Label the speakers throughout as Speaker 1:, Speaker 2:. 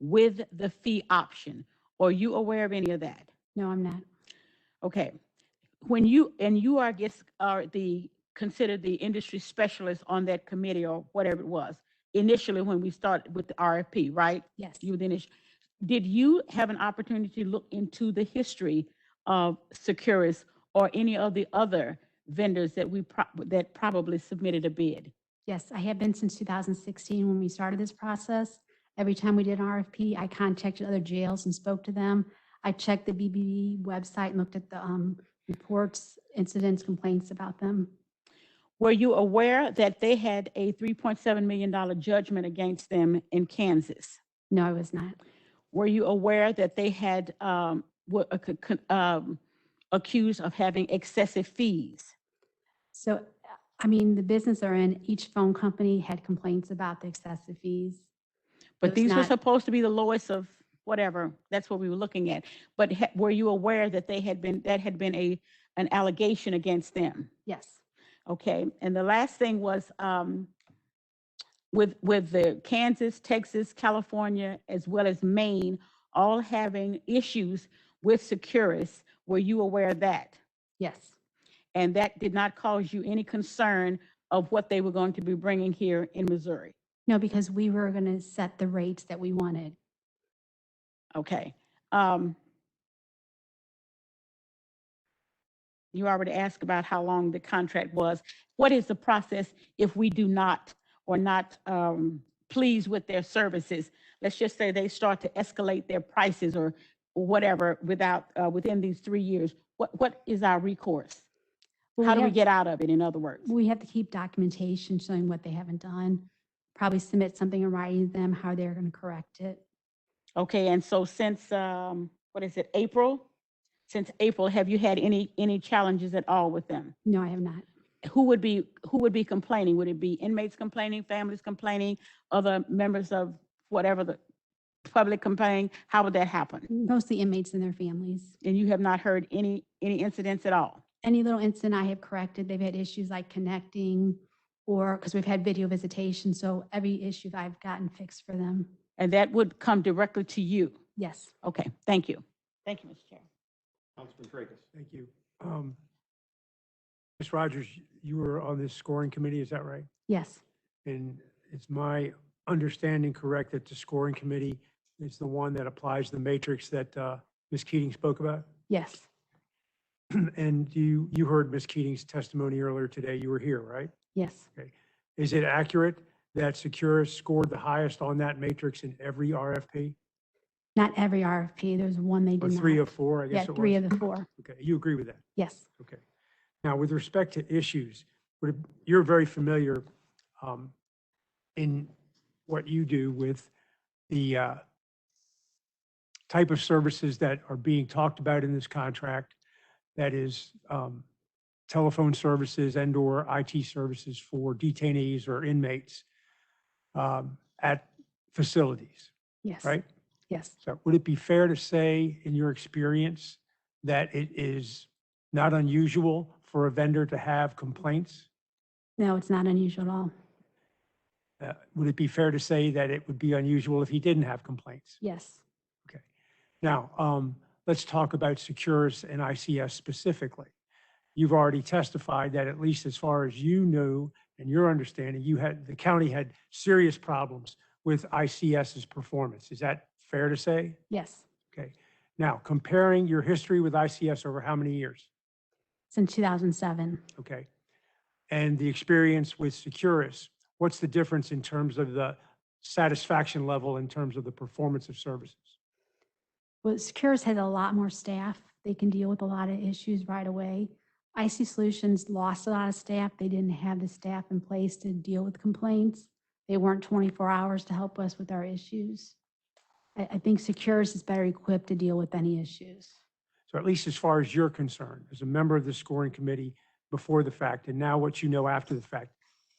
Speaker 1: with the fee option. Are you aware of any of that?
Speaker 2: No, I'm not.
Speaker 1: Okay. When you, and you are, I guess, are the, considered the industry specialist on that committee or whatever it was, initially when we started with the RFP, right?
Speaker 2: Yes.
Speaker 1: You then, is- did you have an opportunity to look into the history of Securus or any of the other vendors that we, prob- that probably submitted a bid?
Speaker 2: Yes, I have been since 2016 when we started this process. Every time we did an RFP, I contacted other jails and spoke to them. I checked the BBB website and looked at the um, reports, incidents, complaints about them.
Speaker 1: Were you aware that they had a $3.7 million judgment against them in Kansas?
Speaker 2: No, I was not.
Speaker 1: Were you aware that they had, um, were ac- con- um, accused of having excessive fees?
Speaker 2: So, I mean, the business they're in, each phone company had complaints about the excessive fees.
Speaker 1: But
Speaker 2: It's
Speaker 1: these were
Speaker 2: not-
Speaker 1: supposed to be the lowest of whatever, that's what we were looking at. But ha- were you aware that they had been, that had been a, an allegation against them?
Speaker 2: Yes,
Speaker 1: Okay, and the last thing was, um, with, with the Kansas, Texas, California, as well as Maine, all having issues with Securus, were you aware of that?
Speaker 2: yes,
Speaker 1: And that did not cause you any concern of what they were going to be bringing here in Missouri?
Speaker 2: no, because we were going to set the rates that we wanted.
Speaker 1: Okay. um, You already asked about how long the contract was. What is the process if we do not or not um, pleased with their services? Let's just say they start to escalate their prices or whatever without, uh, within these three years. What, what is our recourse?
Speaker 2: Well,
Speaker 1: How do we
Speaker 2: have-
Speaker 1: get out of it, in other words?
Speaker 2: We have to keep documentation showing what they haven't done, probably submit something in writing to them, how they're going to correct it.
Speaker 1: Okay, and so since, um, what is it, April? Since April, have you had any, any challenges at all with them?
Speaker 2: No, I have not.
Speaker 1: who would be, who would be complaining? Would it be inmates complaining, families complaining, other members of whatever the public complaining? How would that happen?
Speaker 2: Mostly inmates and their families.
Speaker 1: And you have not heard any, any incidents at all?
Speaker 2: Any little incident I have corrected, they've had issues like connecting or, because we've had video visitation, so every issue I've gotten fixed for them.
Speaker 1: And that would come directly to you?
Speaker 2: Yes.
Speaker 1: Okay, thank you. Thank you, Mr. Chair.
Speaker 3: Councilman Tracus.
Speaker 4: Thank you. Um, Ms. Rogers, you were on this scoring committee, is that right?
Speaker 2: Yes,
Speaker 4: And it's my understanding correct that the scoring committee is the one that applies the matrix that uh, Ms. Keating spoke about?
Speaker 2: yes,
Speaker 4: And you, you heard Ms. Keating's testimony earlier today, you were here, right?
Speaker 2: yes,
Speaker 4: Is it accurate that Securus scored the highest on that matrix in every RFP?
Speaker 2: not every RFP, there's one they
Speaker 4: Or
Speaker 2: did not.
Speaker 4: three of four, I guess
Speaker 2: Yeah,
Speaker 4: it was?
Speaker 2: three of the four,
Speaker 4: Okay, you agree with that?
Speaker 2: yes.
Speaker 4: Okay. Now, with respect to issues, would it- you're very familiar um, in what you do with the uh, type of services that are being talked about in this contract, that is um, telephone services and/or IT services for detainees or inmates um, at facilities,
Speaker 2: Yes.
Speaker 4: right?
Speaker 2: Yes,
Speaker 4: So would it be fair to say, in your experience, that it is not unusual for a vendor to have complaints?
Speaker 2: no, it's not unusual at all.
Speaker 4: Uh, Would it be fair to say that it would be unusual if he didn't have complaints?
Speaker 2: Yes,
Speaker 4: Now, um, let's talk about Securus and ICS specifically. You've already testified that at least as far as you knew and your understanding, you had, the county had serious problems with ICS's performance. Is that fair to say?
Speaker 2: yes,
Speaker 4: Okay. Now, comparing your history with ICS over how many years?
Speaker 2: since 2007.
Speaker 4: Okay. And the experience with Securus, what's the difference in terms of the satisfaction level in terms of the performance of services?
Speaker 2: Well, Securus has a lot more staff. They can deal with a lot of issues right away. IC Solutions lost a lot of staff. They didn't have the staff in place to deal with complaints. They weren't 24 hours to help us with our issues. I, I think Securus is better equipped to deal with any issues.
Speaker 4: So at least as far as you're concerned, as a member of the scoring committee before the fact, and now what you know after the fact,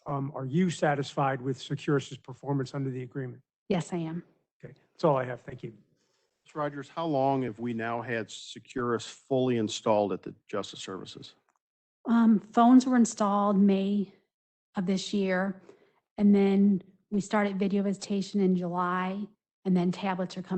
Speaker 4: um, are you satisfied with Securus's performance under the agreement?
Speaker 2: Yes, I am.
Speaker 4: Okay, that's all I have. Thank you.
Speaker 3: Ms. Rogers, how long have we now had Securus fully installed at the Justice Services?
Speaker 2: Um, phones were installed May of this year. And then we started video visitation in July. And then tablets are coming